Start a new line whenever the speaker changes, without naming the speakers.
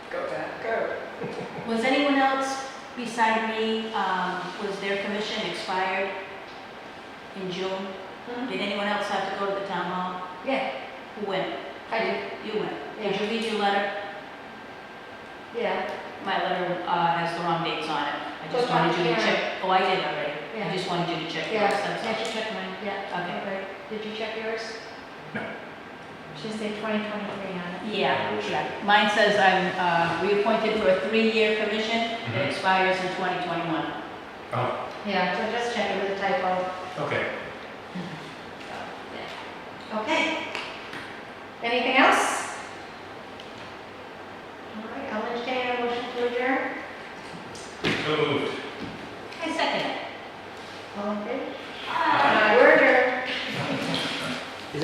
Was anyone else beside me, um, was their commission expired in June?
Mhm.
Did anyone else have to go to the town hall?
Yeah,
Who went?
I did,
You went. Did
Yeah.
you read your letter?
yeah,
My letter uh, has the wrong dates on it. I just
Go back
wanted you to
here.
check. Oh, I did already.
Yeah.
I just wanted you to check yours.
yeah,
that's all.
I should check mine, yeah.
Okay.
Right. Did you check yours?
No.
Should say 2023 on it.
Yeah, yeah. Mine says I'm uh, reappointed for a three-year commission that
Mhm.
expires in 2021.
Oh,
Yeah, so just check it with a typo.
okay.
Okay. Anything